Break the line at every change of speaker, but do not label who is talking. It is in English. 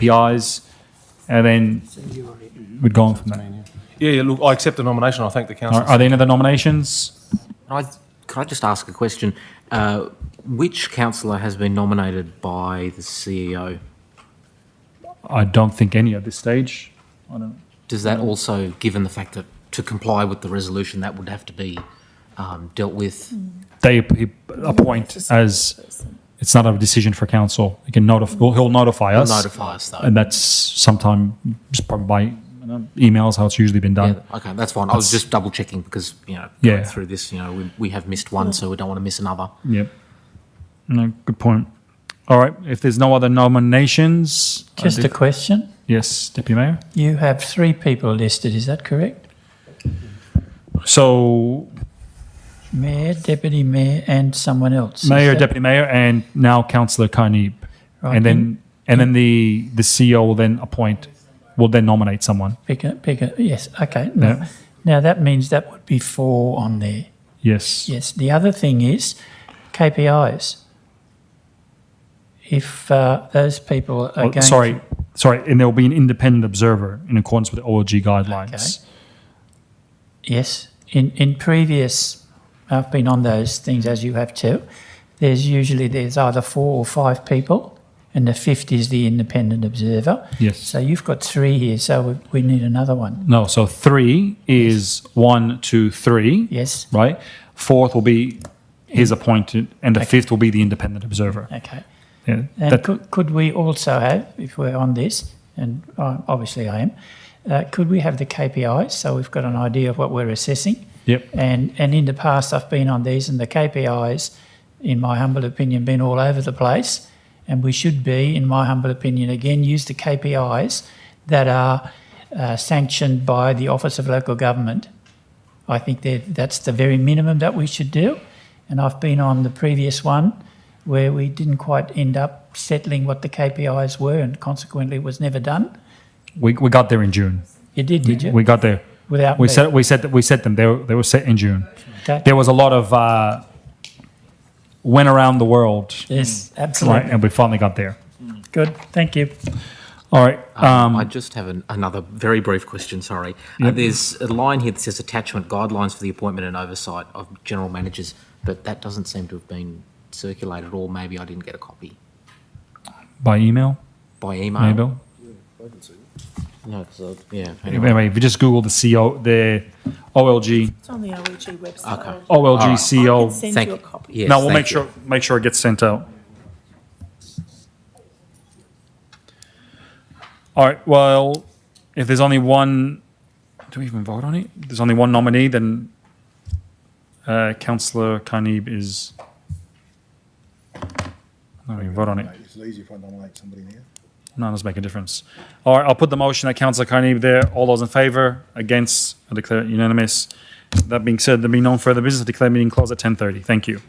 KPIs, and then we'd go on from there.
Yeah, yeah, look, I accept the nomination. I thank the council.
Are, are there any other nominations?
Can I, can I just ask a question? Uh, which councillor has been nominated by the E CEO?
I don't think any at this stage. I don't.
Does that also, given the fact that to comply with the resolution, that would have to be um, dealt with?
They ap- appoint as. It's not a decision for council. He can notify.
Mm-hmm.
He'll notify us.
Notify us though.
and that's sometime just probably by you know, emails how it's usually been done.
Yeah, okay, that's fine. I was just double checking because, you know,
Yeah.
going through this, you know, we, we have missed one, so we don't want to miss another.
Yep. No, good point. All right. If there's no other nominations, I
Just a
think-
question.
yes, Deputy Mayor.
You have three people listed, is that correct?
So
Mayor, deputy mayor, and someone else. is
Mayor,
that-
Deputy Mayor, and now Councillor Carneeb.
Right,
and then and then the the CEO will then appoint, will then nominate someone.
Pick a, pick a, yes, okay. Now,
Yeah.
now that means that would be four on there.
Yes.
Yes, the other thing is KPIs. If uh, those people are
Oh,
going.
sorry, sorry, and there will be an independent observer in accordance with the OLG guidelines.
Yes, in, in previous, I've been on those things as you have too. There's usually, there's either four or five people and the fifth is the independent observer.
Yes.
So you've got three here, so we, we need another one.
No, so three is one, two, three.
Yes,
Right. Fourth will be his appointed, and the fifth will be the independent observer.
okay.
Yeah.
And
That-
could, could we also have, if we're on this, and I, obviously I am, uh, could we have the KPIs so we've got an idea of what we're assessing?
Yep.
And and in the past, I've been on these, and the KPIs, in my humble opinion, been all over the place. And we should be, in my humble opinion, again use the KPIs that are uh, sanctioned by the Office of Local Government. I think that that's the very minimum that we should do. And I've been on the previous one where we didn't quite end up settling what the KPIs were, and consequently, it was never done.
We, we got there in June.
You did, did you?
We got there.
Without
We
me.
said we said that we set them. They were, they were set in June.
That-
There was a lot of uh, went around the world,
yes,
right?
absolutely.
And we finally got there.
Good. Thank you.
All right.
Uh,
Um,
Um,
I just have an, another very brief question, sorry. Uh, there's a line here that says attachment guidelines for the appointment and oversight of general managers, but that doesn't seem to have been circulated, or maybe I didn't get a copy
by email,
by email.
uh,
maybe.
No, 'cause I- yeah. anyway.
Anyway, if you just Google the CO, the OLG,
It's on the OEG website.
Okay.
OLG
right.
Oh, I can
CO.
send
Thank
you a
you.
copy.
Yes,
Now we'll
thank
make
you.
sure make sure it gets sent out. All right. Well, if there's only one, do we even vote on it? If there's only one nominee, then uh, Councillor Carneeb is. No, we vote on it.
It's easy if I nominate somebody now.
None does make a difference. All right, I'll put the motion that Councillor Carnegie there. All those in favour, against, I declare it unanimous. That being said, there being no further business, I declare meeting closed at ten thirty. Thank you.